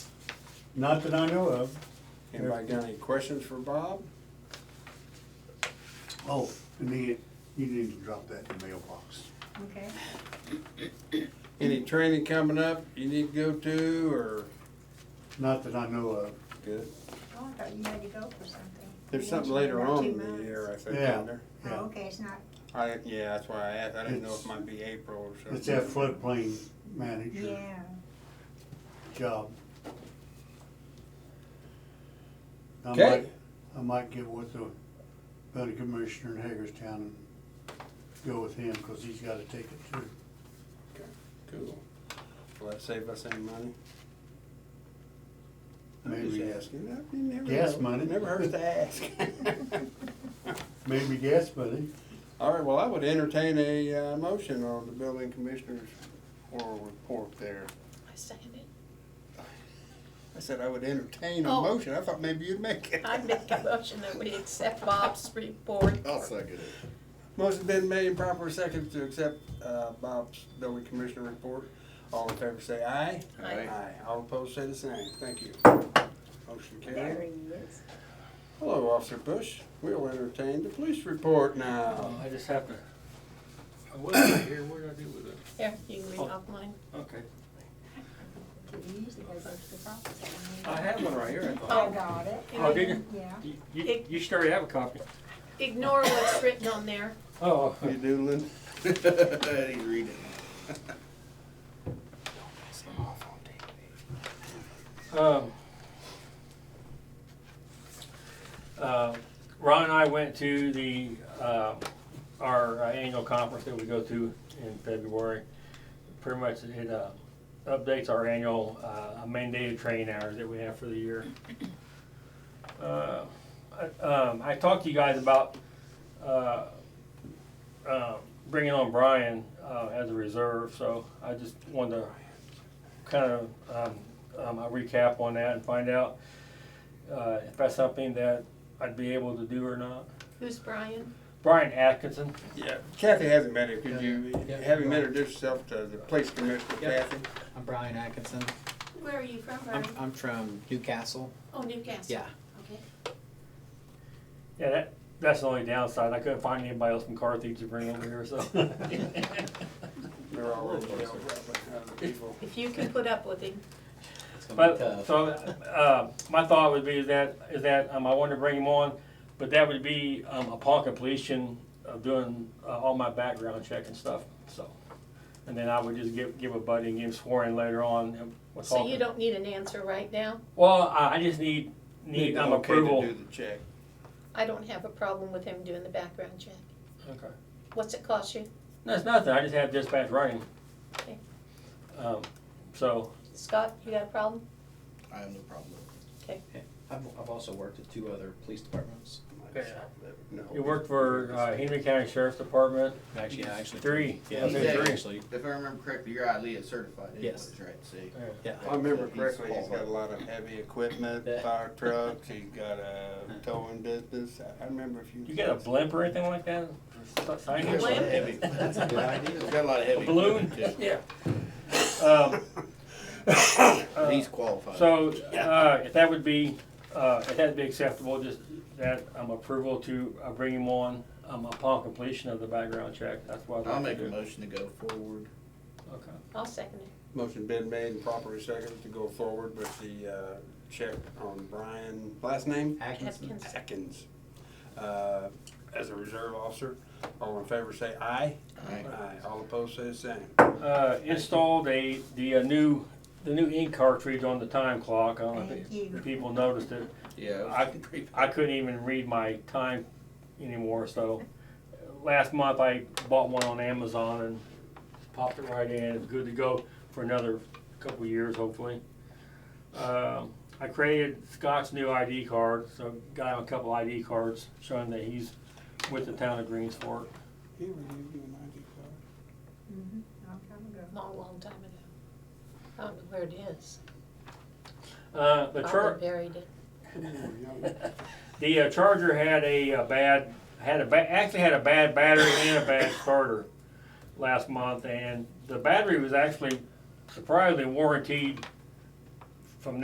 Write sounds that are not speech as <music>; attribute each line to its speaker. Speaker 1: Not that I know of.
Speaker 2: Anybody got any questions for Bob?
Speaker 1: Oh, and then you need to drop that in the mailbox.
Speaker 3: Okay.
Speaker 1: Mm-hmm.
Speaker 2: Any training coming up you need to go to, or?
Speaker 1: Not that I know of.
Speaker 2: Good.
Speaker 3: Oh, I thought you had to go for something.
Speaker 2: There's
Speaker 3: You
Speaker 2: something
Speaker 3: mentioned
Speaker 2: later
Speaker 3: about
Speaker 2: on
Speaker 3: two
Speaker 2: in the
Speaker 3: months.
Speaker 2: year, I think,
Speaker 1: Yeah.
Speaker 2: isn't there?
Speaker 3: Oh,
Speaker 1: Yeah.
Speaker 3: okay, it's not,
Speaker 2: I, yeah, that's why I asked, I didn't know if
Speaker 1: It's-
Speaker 2: it might be April or something.
Speaker 1: It's that floodplain manager
Speaker 3: yeah,
Speaker 1: job. I might-
Speaker 2: Okay.
Speaker 1: I might get with the county commissioner in Hagerstown and go with him, cause he's gotta take it too.
Speaker 2: Cool. Will that save us any money? I'm
Speaker 1: Maybe,
Speaker 2: just asking. I- you never
Speaker 1: Gas
Speaker 2: know.
Speaker 1: money.
Speaker 2: Never hurts to ask. <laughs>
Speaker 1: Maybe gas buddy.
Speaker 2: All right, well, I would entertain a, uh, motion on the building commissioner's oral report there.
Speaker 4: I second it.
Speaker 2: I said I would entertain a
Speaker 4: Oh.
Speaker 2: motion. I thought maybe you'd make it.
Speaker 4: I make a motion that we accept Bob's report.
Speaker 5: second it.
Speaker 2: Motion's been made and proper second to accept uh, Bob's building commissioner report. All in favor say aye.
Speaker 4: Aye.
Speaker 2: Aye. All opposed say the same. Thank you. Motion
Speaker 3: there
Speaker 2: carried.
Speaker 3: he is.
Speaker 2: Hello, Officer Bush. We'll entertain the police report now.
Speaker 6: Um, I just have to. What did I hear? What did I do with it?
Speaker 4: Here, you can read offline.
Speaker 6: Okay.
Speaker 3: He usually goes up to the property.
Speaker 6: I have one right here. I
Speaker 3: I
Speaker 6: thought.
Speaker 3: got it.
Speaker 6: Oh, did you?
Speaker 3: Yeah.
Speaker 6: You, you, you should already have a copy.
Speaker 4: Ignore what's written on there.
Speaker 6: Oh.
Speaker 2: You doodling?
Speaker 5: He's reading.
Speaker 6: Um, uh, Ron and I went to the, uh, our uh, annual conference that we go to in February. Pretty much it, uh, updates our annual, uh, mandated training hours that we have for the year. Uh, I- um, I talked to you guys about, uh, uh, bringing on Brian, uh, as a reserve, so I just wanted to kind of um, um, a recap on that and find out uh, if that's something that I'd be able to do or not.
Speaker 4: Who's Brian?
Speaker 6: Brian Atkinson.
Speaker 2: Yeah. Kathy hasn't met her. Could
Speaker 7: Yeah.
Speaker 2: you
Speaker 7: Yeah.
Speaker 2: have him introduce yourself to the police commissioner,
Speaker 7: Yeah.
Speaker 2: Kathy?
Speaker 7: I'm Brian Atkinson.
Speaker 4: Where are you from,
Speaker 7: I'm,
Speaker 4: Brian?
Speaker 7: I'm from Newcastle.
Speaker 4: Oh, Newcastle. <laughs>
Speaker 7: Yeah.
Speaker 4: Okay.
Speaker 6: Yeah, that, that's the only downside. I couldn't find anybody else from Carthage to bring over here, so.
Speaker 2: They're all over there, but other people.
Speaker 4: If you can put up with him.
Speaker 7: It's gonna be
Speaker 6: But,
Speaker 7: tough.
Speaker 6: so, uh, my thought would be is that, is that, um, I wanted to bring him on, but that would be, um, upon completion of doing, uh, all my background check and stuff, so. And then I would just give, give a buddy and get him sworn later on. and we'll
Speaker 4: So
Speaker 6: talk.
Speaker 4: you don't need an answer right now?
Speaker 6: Well, I, I just need, need,
Speaker 2: Need
Speaker 6: um,
Speaker 2: okay to
Speaker 6: approval.
Speaker 2: Do the check.
Speaker 4: I don't have a problem with him doing the background check.
Speaker 6: Okay.
Speaker 4: What's it cost you?
Speaker 6: That's nothing, I just have dispatch running.
Speaker 4: Okay.
Speaker 6: Um, so,
Speaker 4: Scott, you got a problem?
Speaker 5: I have no problem.
Speaker 7: I've, I've also worked at two other police departments.
Speaker 6: Yeah.
Speaker 2: No.
Speaker 6: you worked for, uh, Henry County Sheriff's Department,
Speaker 7: Actually, yeah, actually.
Speaker 6: Three.
Speaker 7: Yeah,
Speaker 6: Okay,
Speaker 7: yeah,
Speaker 6: three.
Speaker 7: actually.
Speaker 5: If I remember correctly, you're ILEA certified. is
Speaker 7: Yes.
Speaker 5: what it's Right, see.
Speaker 7: Yeah.
Speaker 2: If I remember correctly,
Speaker 5: He's
Speaker 2: he's got a lot of heavy
Speaker 6: <laughs>
Speaker 2: equipment,
Speaker 7: Yeah.
Speaker 2: fire trucks, he's got a towing business, I- I remember a few.
Speaker 6: you got a
Speaker 2: things.
Speaker 6: blimp or anything like that? Sign
Speaker 4: A
Speaker 6: here?
Speaker 4: blimp?
Speaker 5: Heavy. That's a good idea. He's got a lot of heavy.
Speaker 6: A balloon? <laughs>
Speaker 5: equipment,
Speaker 6: Yeah. Um,
Speaker 5: too. He's qualified.
Speaker 6: So, uh, if that would be, uh, if that'd be acceptable, just that, um, approval to, uh, bring him on, um, upon completion of the background check, that's what I'd
Speaker 5: I'll
Speaker 6: like
Speaker 5: make
Speaker 6: to
Speaker 5: a
Speaker 6: do.
Speaker 5: motion to go forward.
Speaker 6: Okay.
Speaker 4: I'll second it.
Speaker 2: Motion been made and properly seconded to go forward with the, uh, check on Brian, last name?
Speaker 7: Atkinson.
Speaker 4: Atkins.
Speaker 2: Atkins, uh, as a reserve officer. All in favor say aye.
Speaker 5: Aye.
Speaker 2: All opposed say the same.
Speaker 6: uh, installed a, the uh, new, the new ink cartridge on the time clock. I don't know if
Speaker 3: Thank you.
Speaker 6: if people noticed it.
Speaker 5: Yeah.
Speaker 6: I- I couldn't even read my time anymore, so last month I bought one on Amazon and popped it right in. It's good to go for another couple years, hopefully. Um, I created Scott's new ID card, so got him a couple ID cards showing that he's with the town of Greensport.
Speaker 3: Mhm, Long time ago.
Speaker 4: Long, long time ago. I don't know where it is.
Speaker 6: Uh, the
Speaker 3: Oh,
Speaker 6: church,
Speaker 4: Probably buried it.
Speaker 6: The uh, charger had a, uh bad, had a ba- actually had a bad battery and a bad starter last month, and the battery was actually surprisingly warranted